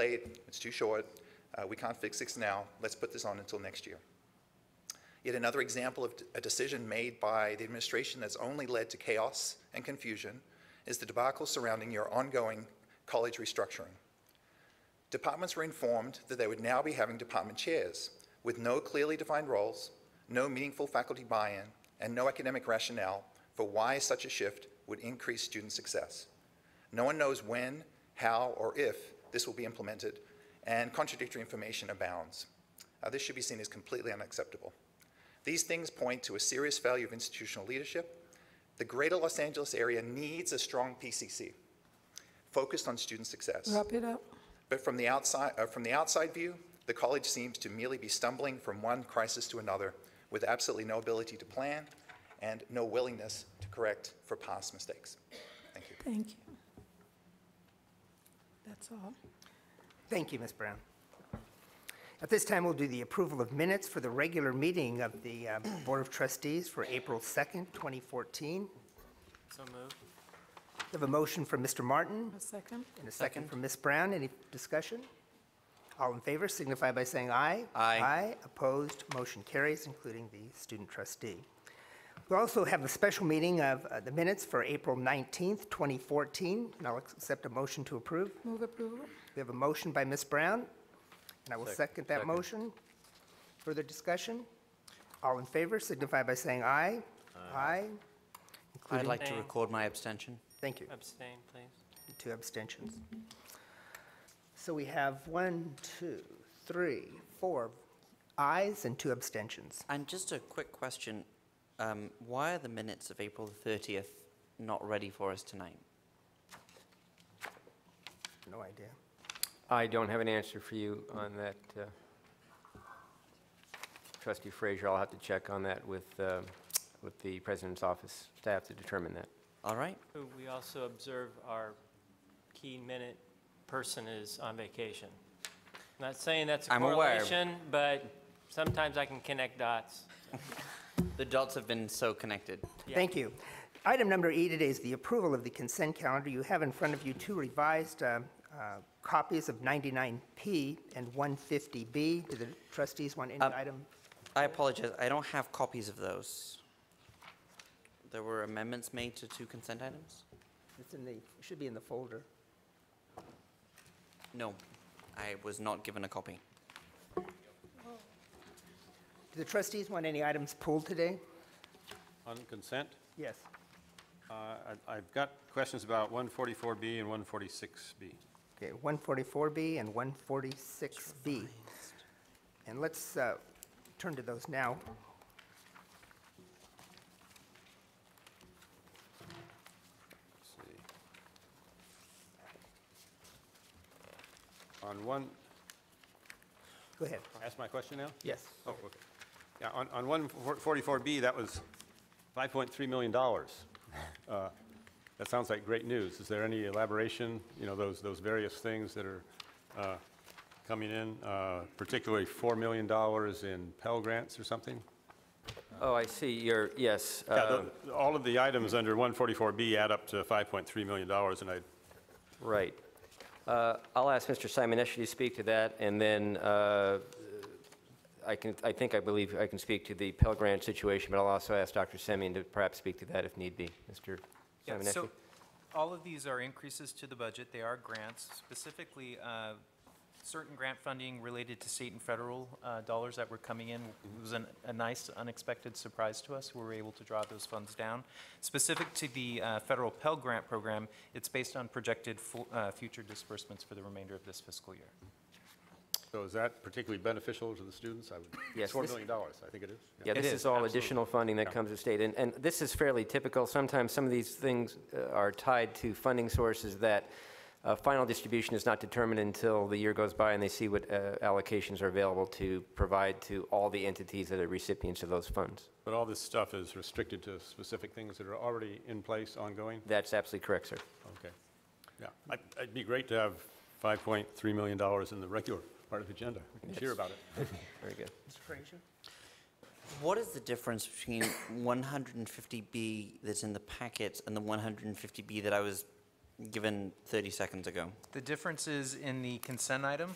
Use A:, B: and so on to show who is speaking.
A: late, it's too short, uh, we can't fix this now, let's put this on until next year. Yet another example of a decision made by the administration that's only led to chaos and confusion is the debacle surrounding your ongoing college restructuring. Departments were informed that they would now be having department chairs with no clearly defined roles, no meaningful faculty buy-in, and no academic rationale for why such a shift would increase student success. No one knows when, how, or if this will be implemented, and contradictory information abounds. Uh, this should be seen as completely unacceptable. These things point to a serious failure of institutional leadership. The greater Los Angeles area needs a strong PCC focused on student success.
B: Wrap it up.
A: But from the outside, uh, from the outside view, the college seems to merely be stumbling from one crisis to another with absolutely no ability to plan and no willingness to correct for past mistakes. Thank you.
B: Thank you. That's all.
C: Thank you, Ms. Brown. At this time, we'll do the approval of minutes for the regular meeting of the uh, Board of Trustees for April 2nd, 2014.
D: So moved.
C: We have a motion from Mr. Martin
B: A second?
C: and a second from Ms. Brown. Any discussion? All in favor signify by saying aye.
D: Aye.
C: Aye. Opposed, motion carries, including the student trustee. We also have a special meeting of uh, the minutes for April 19th, 2014, and I'll accept a motion to approve.
B: Move approval?
C: We have a motion by Ms. Brown, and I will second that
D: second.
C: motion. Further discussion? All in favor signify by saying aye. Aye.
E: I'd like to
D: Abstain.
E: record my abstention.
C: Thank you.
D: Abstain, please.
C: Two abstentions. So we have one, two, three, four ayes and two abstentions.
E: And just a quick question, um, why are the minutes of April the 30th not ready for us tonight?
C: No idea.
F: I don't have an answer for you on that. uh, Trustee Frazier, I'll have to check on that with, uh, with the president's office staff to determine that.
E: All right,
D: We also observe our key minute person is on vacation. Not saying that's a
E: I'm aware.
D: correlation, but sometimes I can connect dots.
E: the dots have been so connected.
C: Thank you. Item number E today is the approval of the consent calendar. You have in front of you two revised um, uh, copies of 99P and 150B. Do the trustees want any item?
E: I apologize, I don't have copies of those. There were amendments made to two consent items?
C: It's in the, it should be in the folder.
E: No, I was not given a copy.
C: Do the trustees want any items pulled today?
G: On consent,
C: Yes.
G: uh, I- I've got questions about 144B and 146B.
C: Okay, 144B and 146B. And let's uh, turn to those now.
G: Let's see. On one,
C: Go ahead.
G: ask my question now?
C: Yes.
G: Oh, okay. Yeah, on, on 144B, that was $5.3 million. Uh, That sounds like great news. Is there any elaboration, you know, those, those various things that are uh, coming in, uh, particularly $4 million in Pell Grants or something?
F: Oh, I see, you're, yes.
G: Yeah,
F: um,
G: the- all of the items under 144B add up to $5.3 million, and I
F: Right. Uh, I'll ask Mr. Simonetti to speak to that, and then uh, I can, I think, I believe I can speak to the Pell Grant situation, but I'll also ask Dr. Semyon to perhaps speak to that if need be. Mr.
H: Yeah,
F: Simonetti?
H: so all of these are increases to the budget. They are grants, specifically uh, certain grant funding related to state and federal uh, dollars that were coming in. It was an- a nice unexpected surprise to us. We were able to draw those funds down. Specific to the uh, federal Pell Grant Program, it's based on projected fu- uh, future disbursements for the remainder of this fiscal year.
G: So is that particularly beneficial to the students? I would,
F: Yes,
G: it's $4
F: this-
G: million, I think it is.
F: Yeah, this is
H: It is,
F: all
H: absolutely.
F: additional funding that comes to state, and, and this is fairly typical. Sometimes some of these things uh, are tied to funding sources that uh, final distribution is not determined until the year goes by and they see what uh, allocations are available to provide to all the entities that are recipients of those funds.
G: But all this stuff is restricted to specific things that are already in place, ongoing?
F: That's absolutely correct, sir.
G: Okay. Yeah, I- it'd be great to have $5.3 million in the regular part of the agenda. We can cheer about it.
F: Very good.
C: Mr. Frazier?
E: What is the difference between 150B that's in the packet and the 150B that I was given 30 seconds ago.
H: The differences in the consent item